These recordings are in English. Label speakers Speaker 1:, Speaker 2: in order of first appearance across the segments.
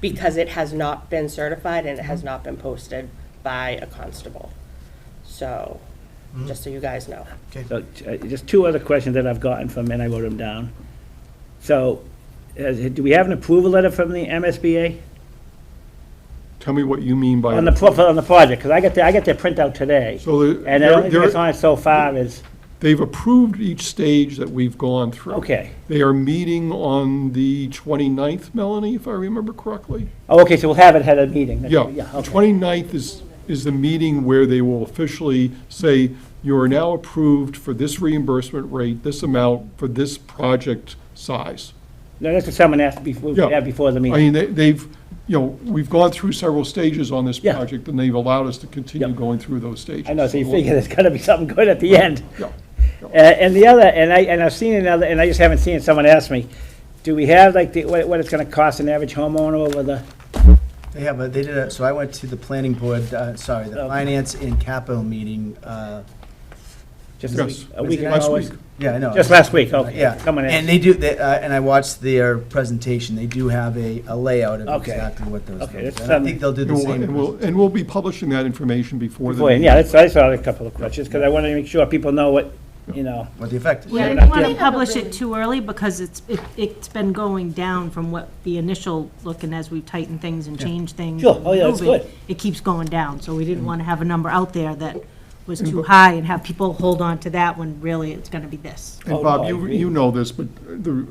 Speaker 1: because it has not been certified and it has not been posted by a constable. So, just so you guys know.
Speaker 2: So, uh, just two other questions that I've gotten from, and I wrote them down. So, uh, do we have an approval letter from the MSBA
Speaker 3: Tell me what you mean by.
Speaker 2: on the, pro- on the project? Because I got, the- I got their printout today.
Speaker 3: Uh, So the-
Speaker 2: And the only thing
Speaker 3: they're-
Speaker 2: that's on it so far is,
Speaker 3: They've approved each stage that we've gone through.
Speaker 2: okay.
Speaker 3: They are meeting on the 29th, Melanie, if I remember correctly?
Speaker 2: Oh, okay, so we'll have it at a meeting. That's-
Speaker 3: Yeah,
Speaker 2: Yeah,
Speaker 3: the
Speaker 2: okay.
Speaker 3: 29th is, is the meeting where they will officially say, you are now approved for this reimbursement rate, this amount, for this project size.
Speaker 2: No, that's what someone asked before,
Speaker 3: Yeah.
Speaker 2: yeah, before the
Speaker 3: I
Speaker 2: meeting.
Speaker 3: mean, they- they've, you know, we've gone through several stages on this
Speaker 2: Yeah.
Speaker 3: project, and they've allowed us to continue
Speaker 2: Yep.
Speaker 3: going through those stages.
Speaker 2: I know, so you figure there's gotta be something good at the end.
Speaker 3: Yeah.
Speaker 2: Uh, And the other, and I, and I've seen another, and I just haven't seen it, someone asked me, do we have like the, what what it's gonna cost an average homeowner over the,
Speaker 4: They have, a- they did a, so I went to the planning board, uh, sorry, the
Speaker 2: Okay.
Speaker 4: finance and capital meeting, uh,
Speaker 2: just a
Speaker 3: Yes,
Speaker 2: week? a week and a
Speaker 3: last
Speaker 2: half?
Speaker 3: week.
Speaker 4: yeah, I know.
Speaker 2: Just last week, okay.
Speaker 4: Yeah,
Speaker 2: Someone asked.
Speaker 4: and they do, they, uh, and I watched their presentation, they do have a, a layout of
Speaker 2: Okay.
Speaker 4: exactly what those
Speaker 2: Okay,
Speaker 4: things.
Speaker 2: that's,
Speaker 4: And I
Speaker 2: um,
Speaker 4: think they'll do the
Speaker 3: And we'll- And
Speaker 4: same.
Speaker 3: we'll, and we'll be publishing that information before the.
Speaker 2: Boy, yeah, that's, I saw a couple of questions, because I wanted to make sure people know what, you know,
Speaker 4: What the effect is.
Speaker 5: Yeah,
Speaker 2: we're
Speaker 5: I
Speaker 2: not
Speaker 5: don't want to
Speaker 2: doing-
Speaker 5: publish it too early because it's, it- it's been going down from what the initial look and as we've tightened things and changed things.
Speaker 2: Sure. Oh, yeah, that's
Speaker 5: and moved
Speaker 2: good. Mm-hmm.
Speaker 5: it, It keeps going down, so we didn't want to have a number out there that was too high and have people hold on to that when really it's going to be this.
Speaker 3: And
Speaker 2: Oh,
Speaker 3: Bob,
Speaker 2: no, I
Speaker 3: you,
Speaker 2: agree.
Speaker 3: you know this, but the,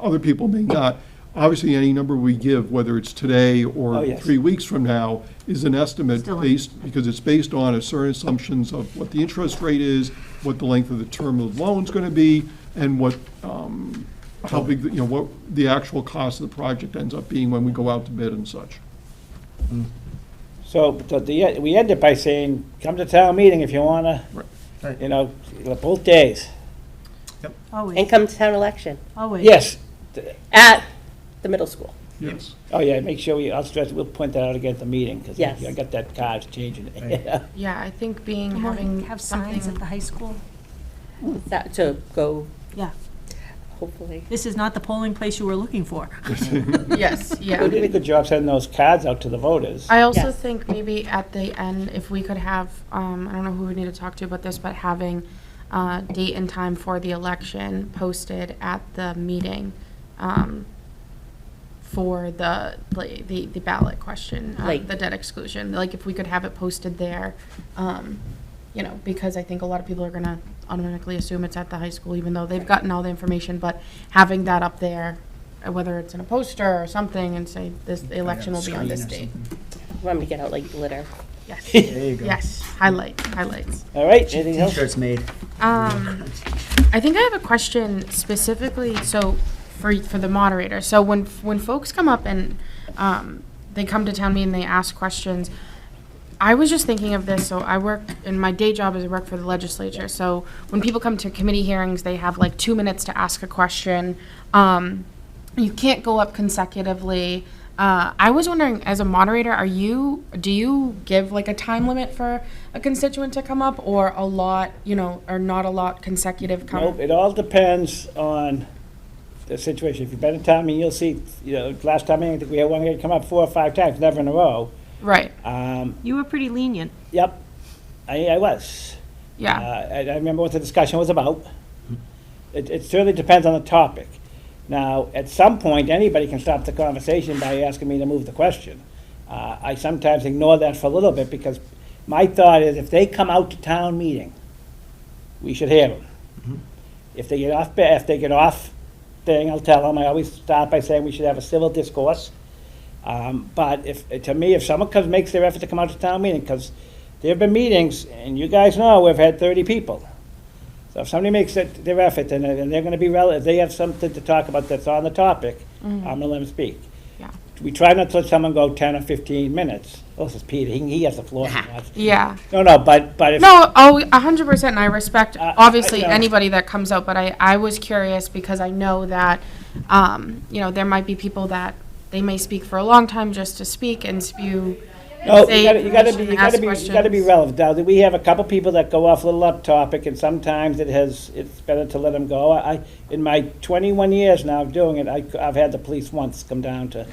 Speaker 3: other people may not. Obviously, any number we give, whether it's today
Speaker 2: Oh,
Speaker 3: or
Speaker 2: yes.
Speaker 3: three weeks from now, is an estimate
Speaker 5: Still-
Speaker 3: based, because it's based on a certain assumptions of what the interest rate is, what the length of the term of the loan's gonna be, and what, um, how big, the- you know, what the actual cost of the project ends up being when we go out to bid and such.
Speaker 2: so, but the, we ended by saying, come to town meeting if you wanna,
Speaker 4: Right.
Speaker 2: you know, both days.
Speaker 1: And
Speaker 5: Always,
Speaker 1: come to town election
Speaker 5: always.
Speaker 2: Yes,
Speaker 1: at the middle school.
Speaker 3: Yes.
Speaker 2: oh yeah, make sure we, I'll stress, we'll point that out again at the meeting, because
Speaker 1: Yes.
Speaker 2: I got that card changing it.
Speaker 6: Yeah, I think being,
Speaker 5: Come on,
Speaker 6: having
Speaker 5: Have signs at
Speaker 6: something,
Speaker 5: the high school.
Speaker 1: That, to go,
Speaker 5: Yeah,
Speaker 1: hopefully.
Speaker 5: this is not the polling place you were looking for.
Speaker 6: yes,
Speaker 2: We
Speaker 6: yeah.
Speaker 2: did a good job sending those cards out to the voters.
Speaker 6: I also
Speaker 1: Yes.
Speaker 6: think maybe at the end, if we could have, um, I don't know who we need to talk to about this, but having uh, date and time for the election posted at the meeting um, for the, like, the the ballot question, uh,
Speaker 1: Like-
Speaker 6: the debt exclusion, like if we could have it posted there, um, you know, because I think a lot of people are gonna automatically assume it's at the high school, even though they've gotten all the information, but having that up there, uh, whether it's in a poster or something, and say, this the election will be on this date.
Speaker 1: Want me to get out like glitter.
Speaker 6: Yes,
Speaker 4: There you go.
Speaker 6: yes, highlight, highlights.
Speaker 2: All right, anything else?
Speaker 4: T-shirts made.
Speaker 6: Um, I think I have a question specifically, so for, for the moderator. So when, when folks come up and, um, they come to town meeting, they ask questions, I was just thinking of this, so I work, in my day job is I work for the legislature, so when people come to committee hearings, they have like two minutes to ask a question. Um, you can't go up consecutively. Uh, I was wondering, as a moderator, are you, do you give like a time limit for a constituent to come up, or a lot, you know, or not a lot consecutive come?
Speaker 2: Nope, it all depends on the situation. If you've been to town meeting, you'll see, you know, last time, I think we had one guy come up four or five times, never in a row.
Speaker 6: Right.
Speaker 2: Um,
Speaker 5: You were pretty lenient.
Speaker 2: Yep, I, I was. Uh,
Speaker 6: Yeah.
Speaker 2: I I remember what the discussion was about. It, it certainly depends on the topic. Now, at some point, anybody can stop the conversation by asking me to move the question. Uh, I sometimes ignore that for a little bit, because my thought is, if they come out to town meeting, we should hear them. If they get off, ba- if they get off thing, I'll tell them, I always start by saying we should have a civil discourse. Um, But if, to me, if someone comes, makes their effort to come out to town meeting, because there've been meetings, and you guys know, we've had thirty people. So if somebody makes it their effort, and and they're gonna be relevant, they have something to talk about that's on the topic, I'm gonna let them speak.
Speaker 6: Yeah.
Speaker 2: We try not to let someone go ten or fifteen minutes. Oh, this is Peter, he, he has the floor. if he wants.
Speaker 6: Yeah.
Speaker 2: No, no, but, but if,
Speaker 6: No, oh, a hundred percent, and I respect,
Speaker 2: Uh, I-
Speaker 6: obviously,
Speaker 2: I- yeah.
Speaker 6: anybody that comes out, but I, I was curious because I know that, um, you know, there might be people that they may speak for a long time just to speak and spew.
Speaker 2: no,
Speaker 6: say
Speaker 2: Oh, you gotta, you gotta be,
Speaker 6: information,
Speaker 2: you gotta
Speaker 6: ask
Speaker 2: be, you gotta be
Speaker 6: questions.
Speaker 2: relevant. Now, we have a couple people that go off a little up topic, and sometimes it has, it's better to let them go. I, I- in my twenty-one years now of doing it, I, I've had the police once come down to